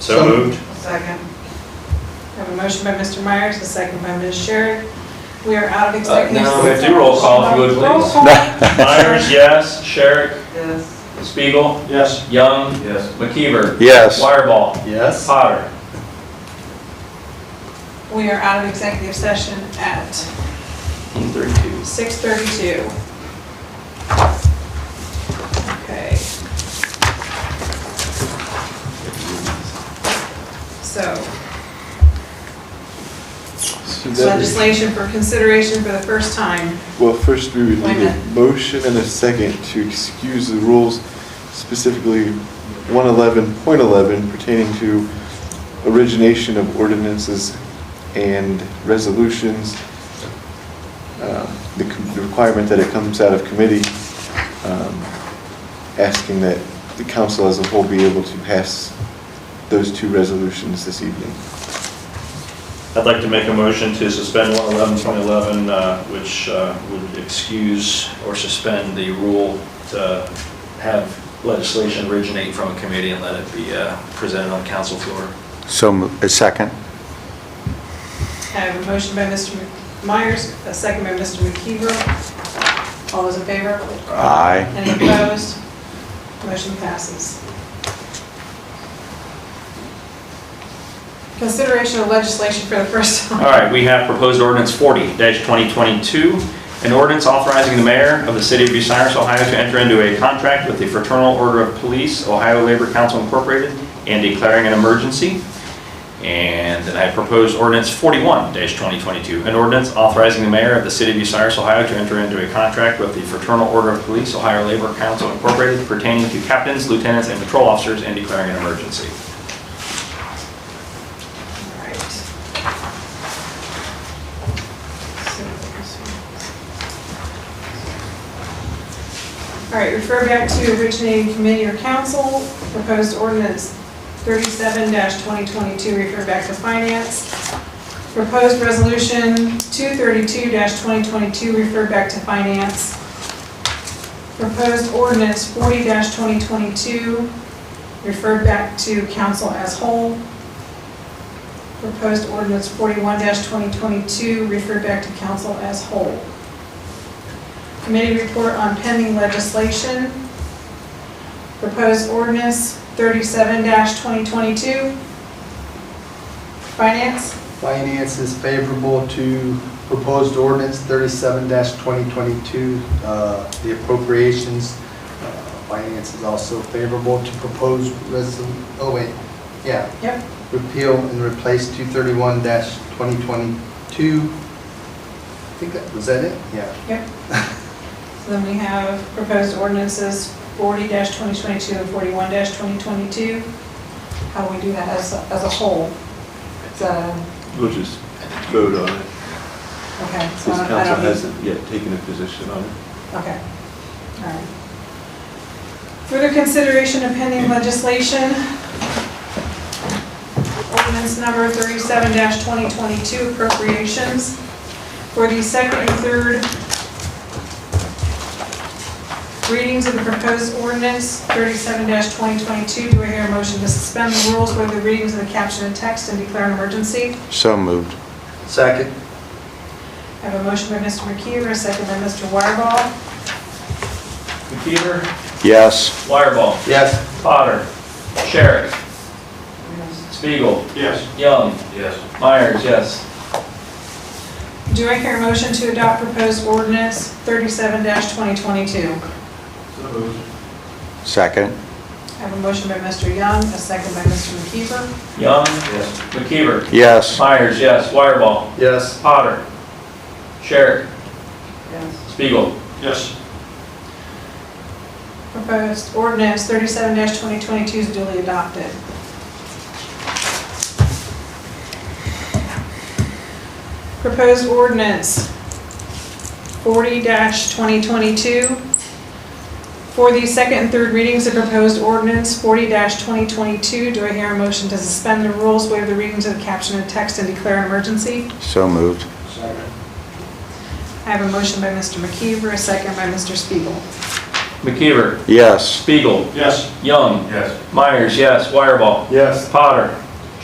So moved. Second. Have a motion by Mr. Myers, a second by Ms. Sherrick. We are out of Uh, executive session. now we have to do roll call, if you would, Roll please. call. Myers, yes. Sherrick, Yes. Spiegel, Yes. Young, Yes. McKeever, Yes. Wireball, Yes. Potter. We are out of executive session at 32. 6:32. Okay. So, legislation for consideration for the first time. Well, first we would Wait a need a minute. motion and a second to excuse the rules specifically 111.11 pertaining to origination of ordinances and resolutions. Uh, The com- the requirement that it comes out of committee, um, asking that the council as a whole be able to pass those two resolutions this evening. I'd like to make a motion to suspend 111.11, uh, which uh, would excuse or suspend the rule to have legislation originate from a committee and let it be uh, presented on council floor. So, mo- a second? I have a motion by Mr. Myers, a second by Mr. McKeever. All those in favor? Aye. Any opposed? Motion passes. Consideration of legislation for the first time. All right, we have proposed ordinance 40-2022, an ordinance authorizing the mayor of the city of Bucyrus, Ohio to enter into a contract with the Fraternal Order of Police, Ohio Labor Council Incorporated, and declaring an emergency. And then I have proposed ordinance 41-2022, an ordinance authorizing the mayor of the city of Bucyrus, Ohio to enter into a contract with the Fraternal Order of Police, Ohio Labor Council Incorporated pertaining to captains, lieutenants, and patrol officers, and declaring an emergency. Alright. All right, refer back to originating committee or council, proposed ordinance thirty-seven twenty twenty-two, refer back to finance. Proposed resolution two thirty-two twenty twenty-two, refer back to finance. Proposed ordinance forty twenty twenty-two, referred back to council as whole. Proposed ordinance 41-2022, referred back to council as whole. Committee report on pending legislation. Proposed ordinance 37-2022. Finance, Finance is favorable to proposed ordinance thirty-seven twenty twenty-two, Uh, the appropriations. Uh, Finance is also favorable to proposed resol, oh wait, yeah. Yep. Repeal and replace two thirty-one twenty twenty-two. I think that, was that it? Yeah. So then we have proposed ordinances 40-2022 and 41-2022. How we do that as, a- as a whole. Is that, a- We'll just vote on it. okay. This Uh, so I don't- I council um, don't need- hasn't yet taken a position on it. Okay, all right. Further consideration of pending legislation. Ordinance number thirty-seven twenty-twenty-two appropriations for the second and third readings of the proposed ordinance thirty-seven twenty-twenty-two. Do I hear a motion to suspend the rules for the readings of the caption and text and declare an emergency? So moved. Second. I have a motion by Mr. McKeever, a second by Mr. Wireball. McKeever, Yes. Wireball, Yes. Potter, Sherrick, Spiegel, Yes. Young, Yes. Myers, yes. Do I hear a motion to adopt proposed ordinance thirty-seven twenty twenty-two? Second? I have a motion by Mr. Young, a second by Mr. McKeever. Young, Yes. McKeever, Yes. Myers, yes. Wireball, Yes. Potter, Sherrick, Spiegel. Yes. Proposed ordinance thirty-seven twenty twenty-two is duly adopted. Proposed ordinance forty twenty twenty-two. For the second and third readings of proposed ordinance forty twenty twenty-two, do I hear a motion to suspend the rules, waive the readings of the caption and text, and declare an emergency? So moved. Second. I have a motion by Mr. McKeever, a second by Mr. Spiegel. McKeever, Yes. Spiegel, Yes. Young, Yes. Myers, yes, Wireball, Yes. Potter,